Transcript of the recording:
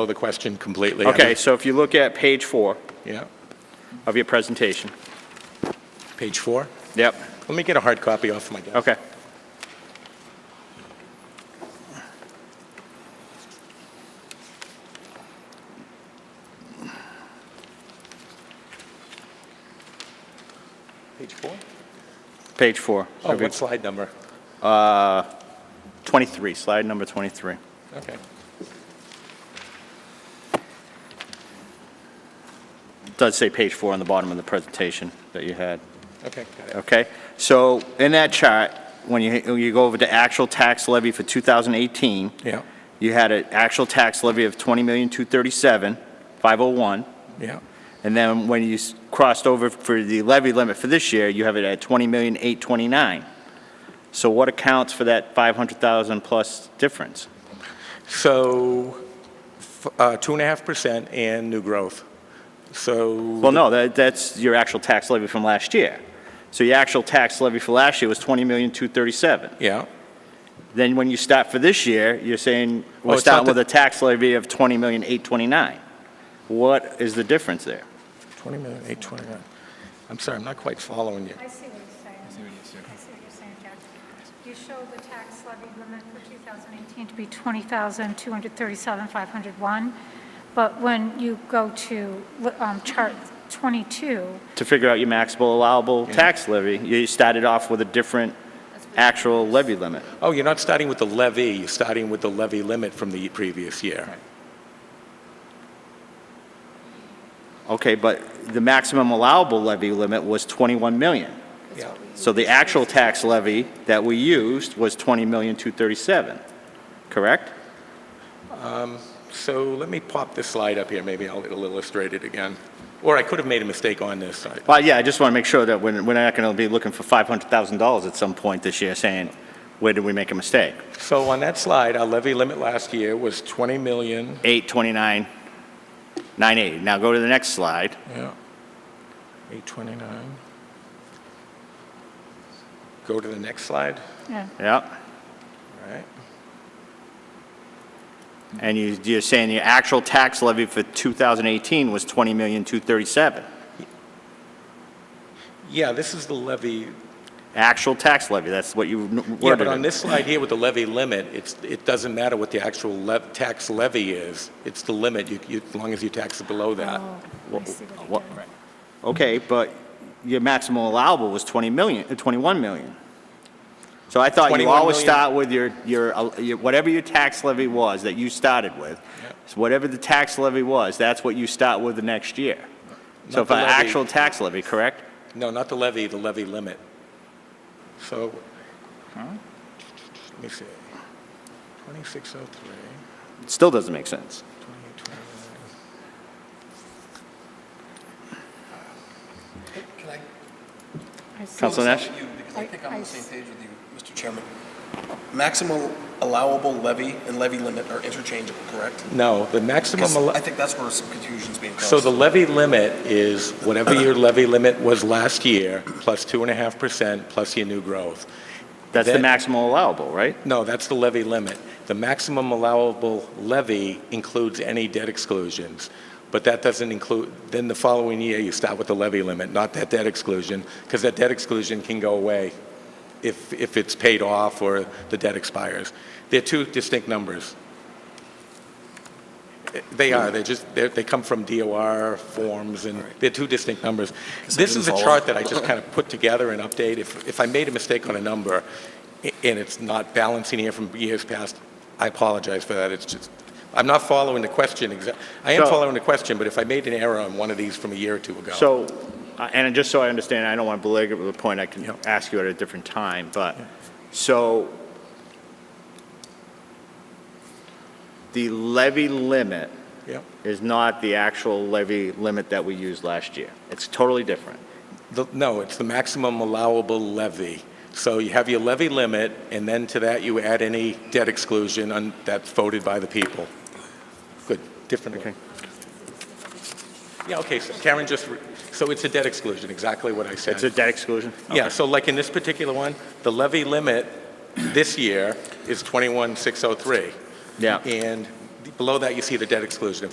follow the question completely. I Okay, mean, so if you look at page four Yeah, of your presentation. page four. Yep, Let me get a hard copy off my desk. okay. Page four? Page four. Oh, what slide number? 23, slide number 23. Okay. It Does say page four on the bottom of the presentation that you had. Okay, got it. Okay, so in that chart, when you, when you go over to actual tax levy for 2018, Yeah, you had an actual tax levy of 20,237, 501. yeah, And then when you s- crossed over for the levy limit for this year, you have it at 20,829. So what accounts for that 500,000 plus difference? so, f- uh, two and a half percent and new growth. So, Well, no, that, that's your actual tax levy from last year. So your actual tax levy for last year was 20,237. yeah, Then when you start for this year, you're saying Oh, we're it's not starting with the- a tax levy of 20,829. What is the difference there? twenty million, eight twenty-nine. I'm sorry, I'm not quite following you. I see what you're saying. I see what you're saying. I see what you're saying, Jack. You show the tax levy limit for 2018 to be 20,237, 501, but when you go to um, chart 22, To figure out your maximal allowable tax levy, you started off with a different actual levy limit. Oh, you're not starting with the levy, you're starting with the levy limit from the previous year. Okay, but the maximum allowable levy limit was 21 million. Yeah. So the actual tax levy that we used was 20,237, correct? So let me pop this slide up here, maybe I'll it'll illustrate it again. Or I could have made a mistake on this side. Well, yeah, I just want to make sure that we're we're not going to be looking for $500,000 at some point this year saying, where did we make a mistake? So on that slide, our levy limit last year was 20 million, 829, 980. Now go to the next slide. yeah, 829. Go to the next slide, yeah, Yep. All right? And you- you're saying your actual tax levy for 2018 was 20,237. Yeah, this is the levy, Actual tax levy, that's what you n- yeah, worded but on it. this slide here with the levy limit, it's, it doesn't matter what the actual lev, tax levy is, it's the limit, you, you, as long as you tax it below that. Oh. I see what What- you're doing. Okay, but your maximum allowable was 20 million, uh, 21 million. So I thought you 21 always million. start with your, your, uh, your- whatever your tax levy was that you started with, so whatever the tax levy was, that's what you start with the next year. So Not if the an levy. actual tax levy, correct? No, not the levy, the levy limit. So, let me see, 2603. It Still doesn't make sense. Can I I see. Councilor Nash? you, because I think I'm on I- I- the same page with you, Mr. Chairman. Maximum allowable levy and levy limit are interchangeable, correct? No, the maximum, 'Cause I allo- think that's where some confusion's being caused. so the levy limit is whatever your levy limit was last year, plus 2.5%, plus your new growth. That's the That- maximum allowable, right? No, that's the levy limit. The maximum allowable levy includes any debt exclusions, but that doesn't include, then the following year, you start with the levy limit, not that debt exclusion, because that debt exclusion can go away if, if it's paid off or the debt expires. They're two distinct numbers. They are, they're just, they're, they come from DOR forms, and they're two distinct numbers. This didn't is a follow. chart that I just kind of put together and update. If, if I made a mistake on a number, i- and it's not balancing here from years past, I apologize for that. It's just, I'm not following the question exa, I am So- following the question, but if I made an error on one of these from a year or two ago. So, uh, and just so I understand, I don't want to belabor the point, I can Yeah. ask you at a different time, but, so, the levy limit Yep. is not the actual levy limit that we used last year. It's totally different. The- No, it's the maximum allowable levy. So you have your levy limit, and then to that you add any debt exclusion on- that's voted by the people. Good, different. one. Okay. Yeah, okay, so Karen just, re- so it's a debt exclusion, exactly what I said. It's a debt exclusion? Yeah, so like in this particular one, the levy limit this year is 21,603. Yeah. And below that, you see the debt exclusion of